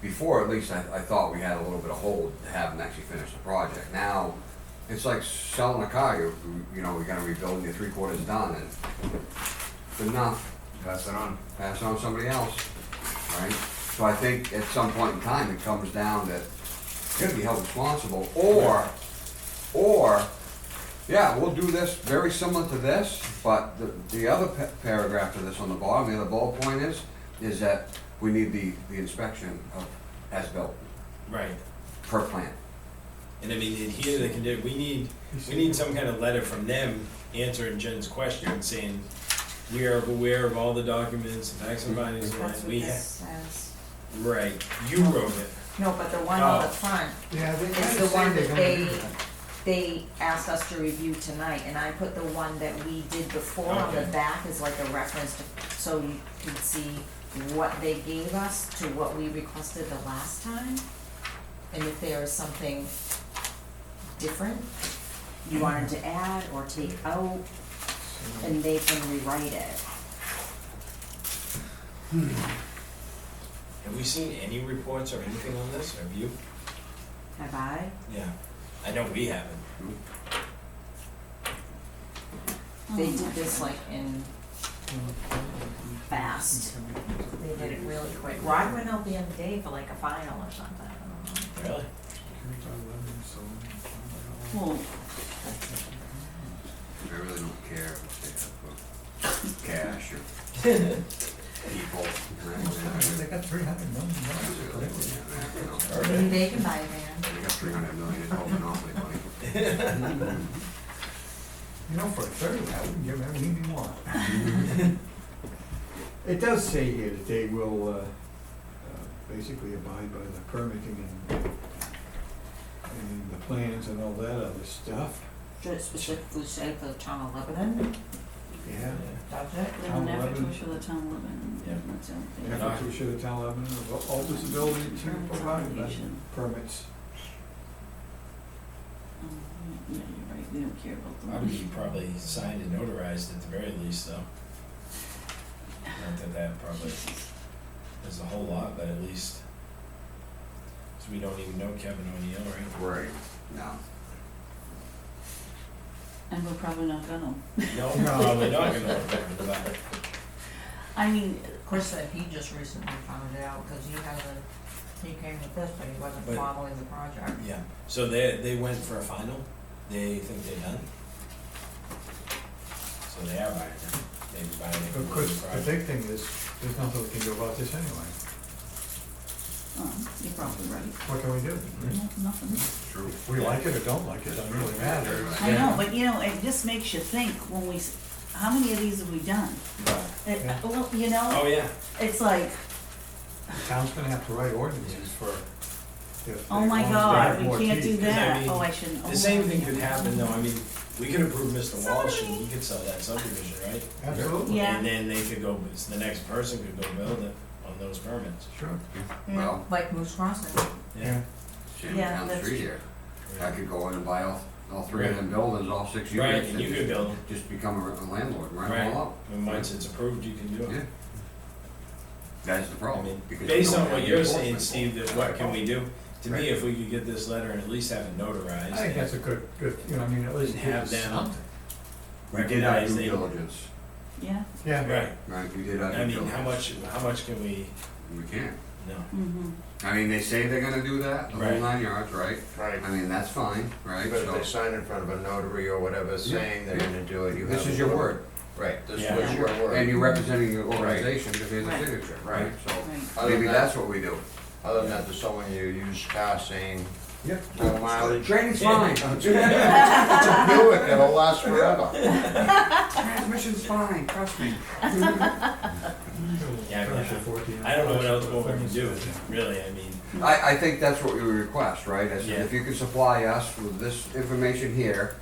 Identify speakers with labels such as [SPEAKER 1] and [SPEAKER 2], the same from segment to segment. [SPEAKER 1] before, at least, I, I thought we had a little bit of hold to have them actually finish the project. Now, it's like selling a car, you, you know, we gotta rebuild and you're three quarters done and good enough,
[SPEAKER 2] Pass it on.
[SPEAKER 1] pass it on to somebody else, right? So I think at some point in time, it comes down that you're gonna be held responsible, or, or, yeah, we'll do this very similar to this, but the, the other pa- paragraph to this on the bottom, the other bullet point is, is that we need the, the inspection of as-built
[SPEAKER 3] Right.
[SPEAKER 1] per plan.
[SPEAKER 3] And I mean, adhere to the condi, we need, we need some kind of letter from them answering Jen's question saying, we are aware of all the documents, the facts and findings,
[SPEAKER 4] That's what
[SPEAKER 3] we have.
[SPEAKER 4] this says.
[SPEAKER 3] Right, you wrote it.
[SPEAKER 4] No, but the one on the
[SPEAKER 3] Oh.
[SPEAKER 4] front,
[SPEAKER 5] Yeah, they
[SPEAKER 4] It's the one that they- they asked us to review tonight, and I put the one that we did before on the
[SPEAKER 3] Okay.
[SPEAKER 4] back as like a reference to, so you can see what they gave us to what we requested the last time. And if there is something different
[SPEAKER 3] Mm-hmm.
[SPEAKER 4] you wanted to add or take out, and they can rewrite it.
[SPEAKER 3] Have we seen any reports or anything on this? Have you?
[SPEAKER 4] Have I?
[SPEAKER 3] Yeah. I know we haven't.
[SPEAKER 4] They did this like in fast. They did it really quick. Rod went out the other day for like a final or something. I don't know.
[SPEAKER 3] Really?
[SPEAKER 4] Well,
[SPEAKER 1] I really don't care if they have uh, cash or people.
[SPEAKER 5] They
[SPEAKER 1] right?
[SPEAKER 5] got three hundred
[SPEAKER 1] They
[SPEAKER 5] million.
[SPEAKER 1] got
[SPEAKER 4] maybe they can buy a van.
[SPEAKER 1] three hundred million in all monopoly money.
[SPEAKER 5] You know, for a third, I wouldn't give them anything more. It does say here that they will, uh, uh, basically abide by the permitting and, and the plans and all that other stuff,
[SPEAKER 4] Should it specifically say for the town of Lebanon?
[SPEAKER 5] yeah.
[SPEAKER 4] Does it?
[SPEAKER 5] Town eleven.
[SPEAKER 6] the town limit,
[SPEAKER 3] Yeah.
[SPEAKER 6] and that's the only thing.
[SPEAKER 3] Yeah.
[SPEAKER 5] Efforts we should have town Lebanon of all disability to
[SPEAKER 6] Insurance
[SPEAKER 5] provide them
[SPEAKER 6] obligation.
[SPEAKER 5] permits.
[SPEAKER 6] Um, Yeah, you're right, we don't care about the
[SPEAKER 3] I would
[SPEAKER 6] money.
[SPEAKER 3] be probably signed and notarized at the very least, though. Not that that probably is a whole lot, but at least, so we don't even know Kevin O'Neill, right?
[SPEAKER 1] Right. No.
[SPEAKER 6] And we're probably not gonna,
[SPEAKER 3] No,
[SPEAKER 5] No.
[SPEAKER 3] probably not gonna know Kevin, but
[SPEAKER 6] I mean,
[SPEAKER 4] Of course, that he just recently found it out, cause he hasn't, he came with this, but he wasn't
[SPEAKER 3] But-
[SPEAKER 4] following the project.
[SPEAKER 3] yeah. So they they went for a final. They think they're done. So they are buying it. They're buying it.
[SPEAKER 5] Of course, the big thing is, there's nothing we can do about this anyway,
[SPEAKER 6] um, you're probably right,
[SPEAKER 5] what can we do?
[SPEAKER 6] No- nothing.
[SPEAKER 1] True.
[SPEAKER 5] We like it or don't like it, doesn't really matter.
[SPEAKER 6] I know, but you know, it just makes you think when we, s- how many of these have we done?
[SPEAKER 3] But-
[SPEAKER 6] It-
[SPEAKER 5] Yeah.
[SPEAKER 6] well, you know,
[SPEAKER 3] Oh, yeah.
[SPEAKER 6] it's like,
[SPEAKER 5] The town's gonna have to write ordinances for, if.
[SPEAKER 6] oh my
[SPEAKER 5] they want to
[SPEAKER 6] god,
[SPEAKER 5] have more
[SPEAKER 6] we can't do
[SPEAKER 5] teeth.
[SPEAKER 6] that,
[SPEAKER 3] mean,
[SPEAKER 6] oh, I shouldn't. oh,
[SPEAKER 3] The same thing
[SPEAKER 6] yeah.
[SPEAKER 3] could happen, though. I mean, we could approve Mr. Walsh and he could sell that subdivision, right?
[SPEAKER 5] Absolutely.
[SPEAKER 6] Yeah.
[SPEAKER 3] And then they could go, the next person could go build it on those permits.
[SPEAKER 5] Sure.
[SPEAKER 1] Well,
[SPEAKER 4] Like Moose Crossing.
[SPEAKER 1] same
[SPEAKER 4] Yeah,
[SPEAKER 1] down the
[SPEAKER 4] that's
[SPEAKER 1] street
[SPEAKER 4] true.
[SPEAKER 1] here. I could go in and buy all, all three of them buildings, all six
[SPEAKER 3] Right,
[SPEAKER 1] units.
[SPEAKER 3] and you could build them.
[SPEAKER 1] Just become a a landlord, right,
[SPEAKER 3] Right.
[SPEAKER 1] all up.
[SPEAKER 3] And once it's approved, you can do
[SPEAKER 1] Yeah.
[SPEAKER 3] it.
[SPEAKER 1] That's the
[SPEAKER 3] I
[SPEAKER 1] problem.
[SPEAKER 3] mean,
[SPEAKER 1] because we
[SPEAKER 3] based
[SPEAKER 1] don't
[SPEAKER 3] on
[SPEAKER 1] have
[SPEAKER 3] what
[SPEAKER 1] the
[SPEAKER 3] you're saying,
[SPEAKER 1] enforcement.
[SPEAKER 3] Steve, that what can we do? To
[SPEAKER 1] Right.
[SPEAKER 3] me, if we could get this letter and at least have it
[SPEAKER 5] I think that's
[SPEAKER 3] notarized
[SPEAKER 5] a good, good, you know, I mean, at least.
[SPEAKER 3] and have
[SPEAKER 5] give us
[SPEAKER 3] them.
[SPEAKER 5] something.
[SPEAKER 1] We did our
[SPEAKER 3] recognize
[SPEAKER 1] due
[SPEAKER 3] they-
[SPEAKER 1] diligence,
[SPEAKER 6] Yeah,
[SPEAKER 5] Yeah,
[SPEAKER 3] Right.
[SPEAKER 1] right, we did our
[SPEAKER 3] I
[SPEAKER 1] due
[SPEAKER 3] mean,
[SPEAKER 1] diligence.
[SPEAKER 3] how much, how much can we,
[SPEAKER 1] We can't.
[SPEAKER 3] no.
[SPEAKER 6] mm-hmm,
[SPEAKER 1] I mean, they say they're gonna do that, the whole
[SPEAKER 3] Right.
[SPEAKER 1] nine yards, right?
[SPEAKER 2] Right,
[SPEAKER 1] I mean, that's fine, right?
[SPEAKER 2] but if they
[SPEAKER 1] So,
[SPEAKER 2] sign in front of a notary or whatever saying they're gonna do it, you have.
[SPEAKER 1] This
[SPEAKER 2] a
[SPEAKER 1] is your
[SPEAKER 2] little-
[SPEAKER 1] word,
[SPEAKER 2] Right, this
[SPEAKER 3] Yeah.
[SPEAKER 2] was your
[SPEAKER 1] and
[SPEAKER 2] word.
[SPEAKER 1] you're representing your organization because there's a
[SPEAKER 6] Right.
[SPEAKER 1] signature,
[SPEAKER 2] Right.
[SPEAKER 1] right? So
[SPEAKER 6] right,
[SPEAKER 2] Other
[SPEAKER 1] maybe
[SPEAKER 2] than
[SPEAKER 1] that's what we do.
[SPEAKER 2] that- Other than that, there's someone you use car saying,
[SPEAKER 5] yeah.
[SPEAKER 2] no mileage,
[SPEAKER 1] Training's
[SPEAKER 3] Yeah.
[SPEAKER 1] fine,
[SPEAKER 2] Buick, it'll last forever.
[SPEAKER 1] transmission's fine, trust me.
[SPEAKER 3] Yeah, I mean,
[SPEAKER 5] Finish it 14.
[SPEAKER 3] I don't know what else more we can do, really, I mean,
[SPEAKER 1] I, I think that's what we request, right? Is
[SPEAKER 3] Yeah.
[SPEAKER 1] if you can supply us with this information here,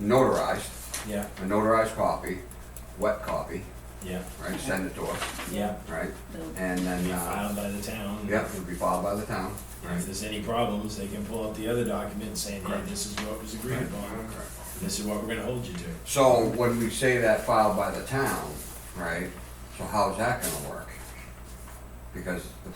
[SPEAKER 1] notarized,
[SPEAKER 3] yeah,
[SPEAKER 1] a notarized copy, wet copy,
[SPEAKER 3] yeah,
[SPEAKER 1] right, send it to us,
[SPEAKER 3] yeah.
[SPEAKER 1] right?
[SPEAKER 6] the-
[SPEAKER 1] And
[SPEAKER 3] Be
[SPEAKER 1] then, uh,
[SPEAKER 3] filed by the town.
[SPEAKER 1] yeah, it'll be filed by the town,
[SPEAKER 3] And If
[SPEAKER 1] right?
[SPEAKER 3] there's any problems, they can pull up the other document saying, hey,
[SPEAKER 1] Correct.
[SPEAKER 3] this is what was agreed upon, this is what we're gonna hold you to.
[SPEAKER 1] So when we say that filed by the town, right, so how's that gonna work? Because the